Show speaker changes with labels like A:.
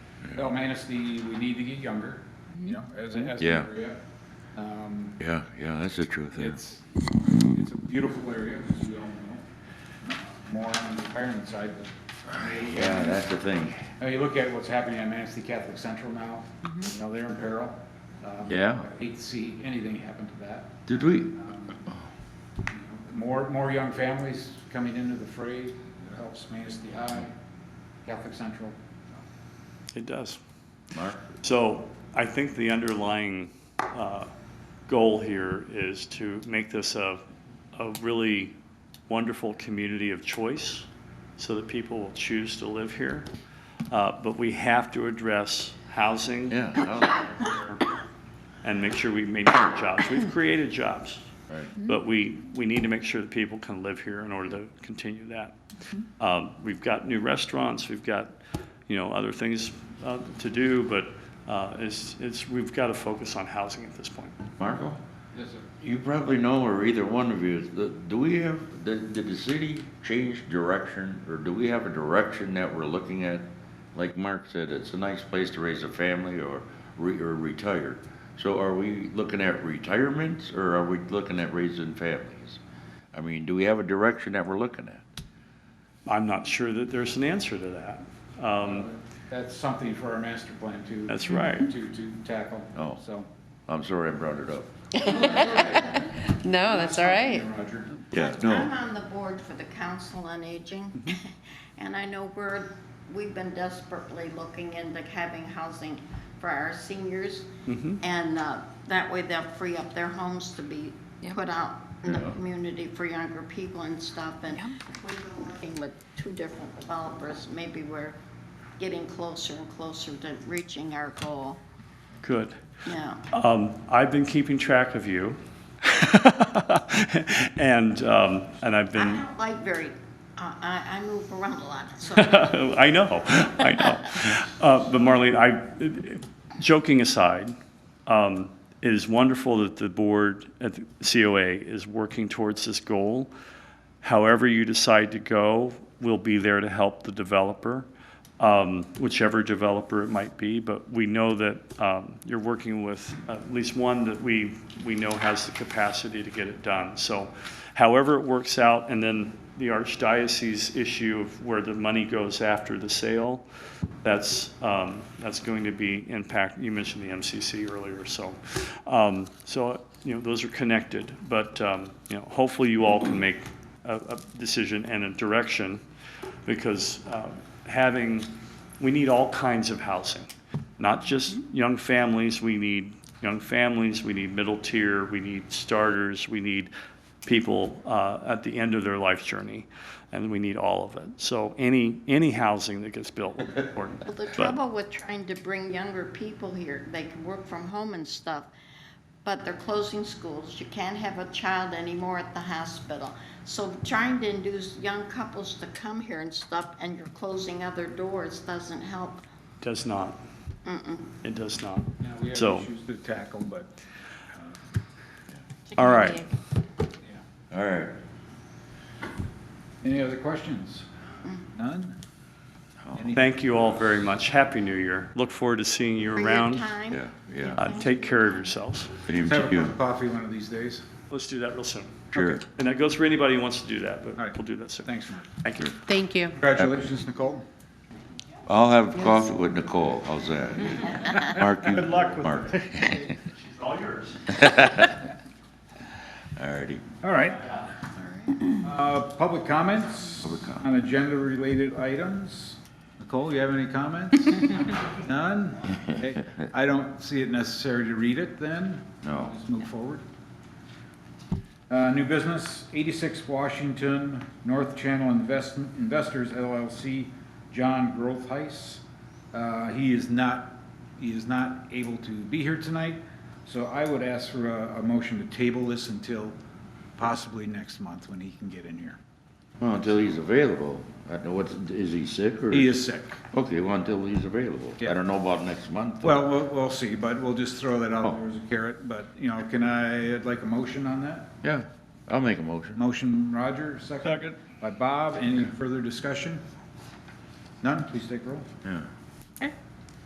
A: they'll manage the, we need to get younger, you know, as, as.
B: Yeah.
A: an area. Um,
B: Yeah, yeah, that's the truth. yeah.
A: It's, it's a beautiful area, as we all know. More on the retirement side, but.
B: Yeah, that's the thing.
A: Now, you look at what's happening at Manistee Catholic Central now, you know, they're in peril. Um,
B: Yeah.
A: I Hate to see anything happen to that. Um,
B: Did we,
A: More, more young families coming into the fray, it helps Manistee High, Catholic Central.
C: It does.
B: Mark?
C: So I think the underlying uh, goal here is to make this a, a really wonderful community of choice so that people will choose to live here. Uh, But we have to address housing
B: Yeah. oh. I'll-
C: and make sure we maintain jobs. We've created jobs,
B: Right.
C: but we, we need to make sure that people can live here in order to continue that. Um, We've got new restaurants, we've got, you know, other things uh, to do, but uh, it's, it's, we've got to focus on housing at this point.
B: Marco?
A: Yes, sir.
B: You probably know, or either one of you, is the- do we have, did, did the city change direction, or do we have a direction that we're looking at? Like Mark said, it's a nice place to raise a family or re, or retire. So are we looking at retirements, or are we looking at raising families? I mean, do we have a direction that we're looking at?
C: I'm not sure that there's an answer to that. Um,
A: That's something for our master plan to.
C: That's right.
A: To, to tackle.
B: Oh.
A: So.
B: I'm sorry I brought it up.
D: No, that's all right.
A: Roger.
B: Yeah, Mm-hmm.
E: I'm on the board for the Council on Aging, and I know we're, we've been desperately looking into having housing for our seniors.
B: Mm-hmm.
E: And uh, that way they'll free up their homes to be
D: Yep.
E: put out in the
B: Yeah.
E: community for younger people and stuff. And
D: Yep.
E: we've been working with two different developers, maybe we're getting closer and closer to reaching our goal,
C: Good.
E: yeah.
C: Um, I've been keeping track of you. And, um, and I've
E: I
C: been.
E: don't like very, uh, I, I I move around a lot, so.
C: I know, I know. Uh, But Marlene, I, joking aside, um, it is wonderful that the board at the COA is working towards this goal. However you decide to go, we'll be there to help the developer, um, whichever developer it might be. But we know that um, you're working with at least one that we, we know has the capacity to get it done. So however it works out, and then the archdiocese issue of where the money goes after the sale, that's, um, that's going to be impact, you mentioned the MCC earlier, so. um, So, you know, those are connected, but, um, you know, hopefully you all can make a, a decision and a direction, because um, having, we need all kinds of housing, not just young families, we need young families, we need middle tier, we need starters, we need people uh, at the end of their life journey, and we need all of it. So any, any housing that gets built will be important.
E: Well, the
C: But-
E: trouble with trying to bring younger people here, they can work from home and stuff, but they're closing schools. You can't have a child anymore at the hospital. So trying to induce young couples to come here and stuff, and you're closing other doors, doesn't help.
C: Does not. It does not.
A: Now, we have
C: So-
A: issues to tackle, but,
C: All right.
A: yeah.
B: All right,
A: Any other questions?
D: Mm.
A: None? Any-
C: Thank you all very much. Happy New Year. Look forward to seeing you
E: For your
C: around.
E: time.
B: yeah, yeah.
C: Uh, Take care of yourselves.
B: Even
A: Have a
B: to
A: cup
B: you.
A: of coffee one of these days.
C: Let's do that real soon.
B: Sure.
C: And that goes for anybody who wants to do that,
A: All
C: but
A: right.
C: we'll do that soon.
A: Thanks, Mark.
C: Thank you.
D: Thank you.
A: Congratulations, Nicole.
B: I'll have coffee with Nicole, how's that? Mark, you. Good luck with Mark,
C: All yours.
B: all righty.
A: All right. Uh, Public comments
B: Public comment.
A: on agenda-related items. Nicole, you have any comments? None? Okay. I don't see it necessary to read it then.
B: No.
A: Let's move forward. Uh, New business, 86 Washington, North Channel Invest- Investors LLC, John Growthheis. Uh, He is not, he is not able to be here tonight, so I would ask for a, a motion to table this until possibly next month when he can get in here.
B: Well, until he's available. I don't know what's, is he sick or?
A: He is sick.
B: Okay, well, until he's available. I
A: Yeah.
B: don't know about next month.
A: Well, we'll, we'll see, but we'll just throw that out
B: Oh.
A: there as a carrot, but, you know, can I, I'd like a motion on that?
B: Yeah, I'll make a motion.
A: Motion Roger, second. By Bob, any further discussion? None, please take roll.
B: Yeah.